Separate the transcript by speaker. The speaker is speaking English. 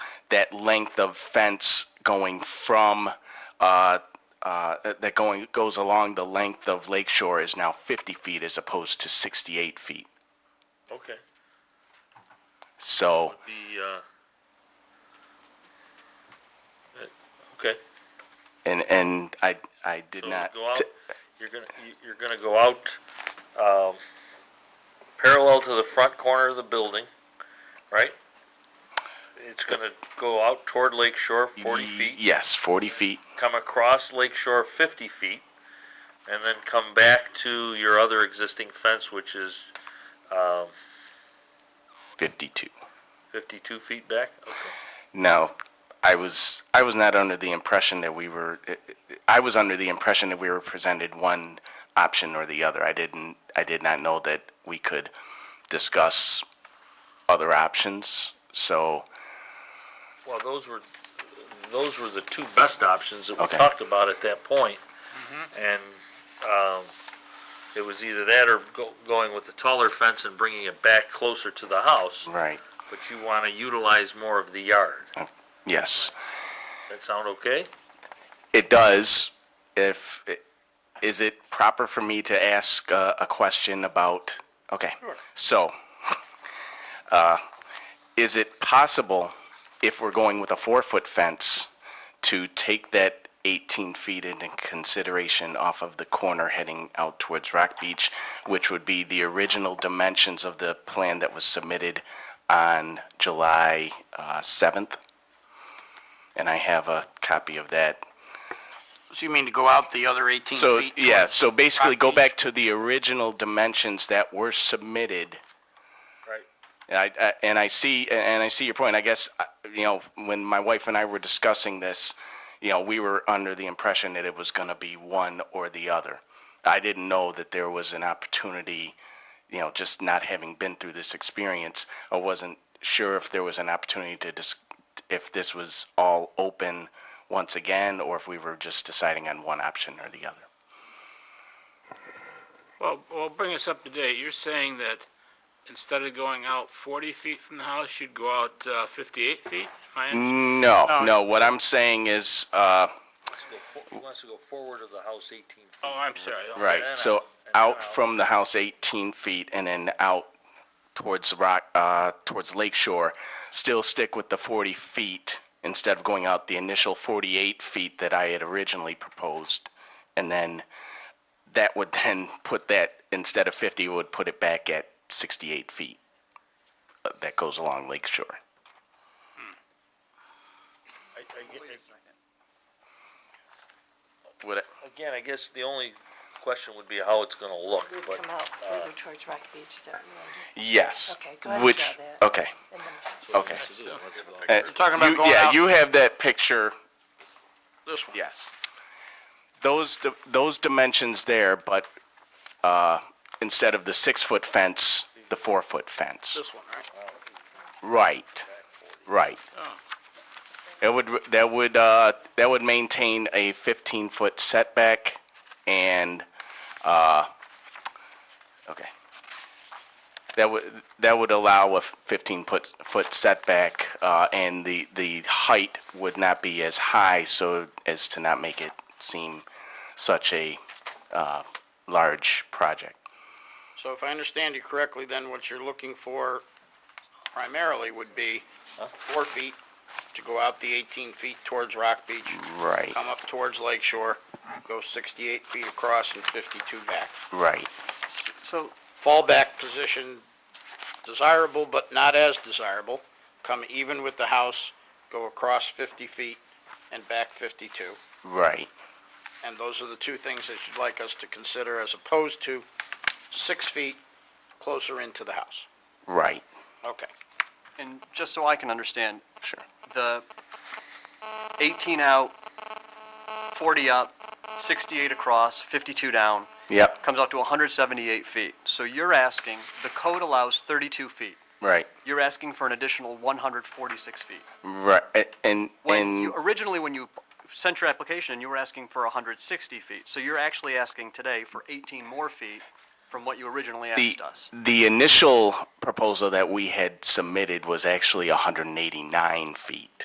Speaker 1: that length of fence going from uh, uh, that going goes along the length of Lake Shore is now 50 feet as opposed to 68 feet.
Speaker 2: Okay.
Speaker 1: So
Speaker 2: The, uh, uh, okay.
Speaker 1: and and I I did
Speaker 2: So
Speaker 1: not.
Speaker 2: go out,
Speaker 1: t-
Speaker 2: you're gonna, you- you're gonna go out, um, parallel to the front corner of the building, right? It's gonna go out toward Lake Shore forty feet,
Speaker 1: Yes, 40 feet.
Speaker 2: come across Lake Shore fifty feet, and then come back to your other existing fence, which is
Speaker 1: 52.
Speaker 2: fifty-two feet back? Okay.
Speaker 1: No, I was I was not under the impression that we were. I was under the impression that we were presented one option or the other. I didn't. I did not know that we could discuss other options. So
Speaker 2: Well, those were, those were the two best options that we
Speaker 1: Okay.
Speaker 2: talked about at that point.
Speaker 3: Mm-hmm.
Speaker 2: And, um, it was either that or go, going with the taller fence and bringing it back closer to the house.
Speaker 1: right.
Speaker 2: But you wanna utilize more of the yard.
Speaker 1: Oh. Yes,
Speaker 2: That sound okay?
Speaker 1: it does. If is it proper for me to ask uh, a question about? Okay. So, uh, is it possible if we're going with a four-foot fence to take that 18 feet into consideration off of the corner heading out towards Rock Beach, which would be the original dimensions of the plan that was submitted on July uh, 7th? And I have a copy of that.
Speaker 4: So you mean to go out the other 18
Speaker 1: So, e-
Speaker 4: feet?
Speaker 1: yeah, so basically
Speaker 4: Rock
Speaker 1: go
Speaker 4: Beach.
Speaker 1: back to the original dimensions that were submitted.
Speaker 2: Right.
Speaker 1: And I, I- and I see, and I see your point. I guess, uh, you know, when my wife and I were discussing this, you know, we were under the impression that it was going to be one or the other. I didn't know that there was an opportunity, you know, just not having been through this experience, I wasn't sure if there was an opportunity to dis- if this was all open once again, or if we were just deciding on one option or the other.
Speaker 3: Well, well, bring us up to date. You're saying that instead of going out 40 feet from the house, you'd go out uh, 58 feet? Am I
Speaker 1: Mm.
Speaker 3: under-
Speaker 1: No, no, what I'm saying is, uh,
Speaker 2: Let's go for- He wants to go forward of the house eighteen feet.
Speaker 3: Oh, I'm sorry. Oh,
Speaker 1: right,
Speaker 2: then
Speaker 1: so
Speaker 2: out, and uh, then
Speaker 1: out
Speaker 2: out.
Speaker 1: from the house 18 feet and then out towards rock, uh, towards Lake Shore, still stick with the 40 feet instead of going out the initial 48 feet that I had originally proposed. And then that would then put that, instead of 50, would put it back at 68 feet. uh, That goes along Lake Shore.
Speaker 2: Hmm. I- I get-
Speaker 1: Would it-
Speaker 2: Again, I guess the only question would be how it's gonna look,
Speaker 5: It would
Speaker 2: but,
Speaker 5: come out further towards Rock Beach, is that right?
Speaker 1: Yes.
Speaker 5: Okay, go ahead and
Speaker 1: Which,
Speaker 5: draw that.
Speaker 1: okay,
Speaker 5: And then-
Speaker 1: okay. Uh,
Speaker 4: talking about
Speaker 1: you-
Speaker 4: going
Speaker 1: yeah,
Speaker 4: out-
Speaker 1: you have that picture.
Speaker 4: This one.
Speaker 1: Yes. Those di- those dimensions there, but uh, instead of the six foot fence, the four foot fence.
Speaker 4: This one, right?
Speaker 1: Right. Right. That would that would uh, that would maintain a 15 foot setback, and uh, okay. That would that would allow a 15 foot foot setback, uh, and the the height would not be as high, so as to not make it seem such a uh, large project.
Speaker 4: So if I understand you correctly, then what you're looking for primarily would be four feet to go out the 18 feet towards Rock Beach,
Speaker 1: Right.
Speaker 4: come up towards Lake Shore, go 68 feet across and 52 back.
Speaker 1: Right.
Speaker 6: So,
Speaker 4: Fallback position desirable but not as desirable. Come even with the house, go across 50 feet and back 52.
Speaker 1: Right.
Speaker 4: And those are the two things that you'd like us to consider as opposed to six feet closer into the house.
Speaker 1: Right.
Speaker 4: Okay.
Speaker 6: and just so I can understand,
Speaker 1: Sure.
Speaker 6: the 18 out, 40 up, 68 across, 52 down,
Speaker 1: Yep.
Speaker 6: comes out to 178 feet. So you're asking, the code allows 32 feet.
Speaker 1: Right.
Speaker 6: You're asking for an additional 146 feet.
Speaker 1: Right, a- and,
Speaker 6: When
Speaker 1: and,
Speaker 6: you, originally, when you sent your application, you were asking for 160 feet. So you're actually asking today for 18 more feet from what you originally
Speaker 1: the,
Speaker 6: asked us.
Speaker 1: the initial proposal that we had submitted was actually hundred and eighty-nine feet.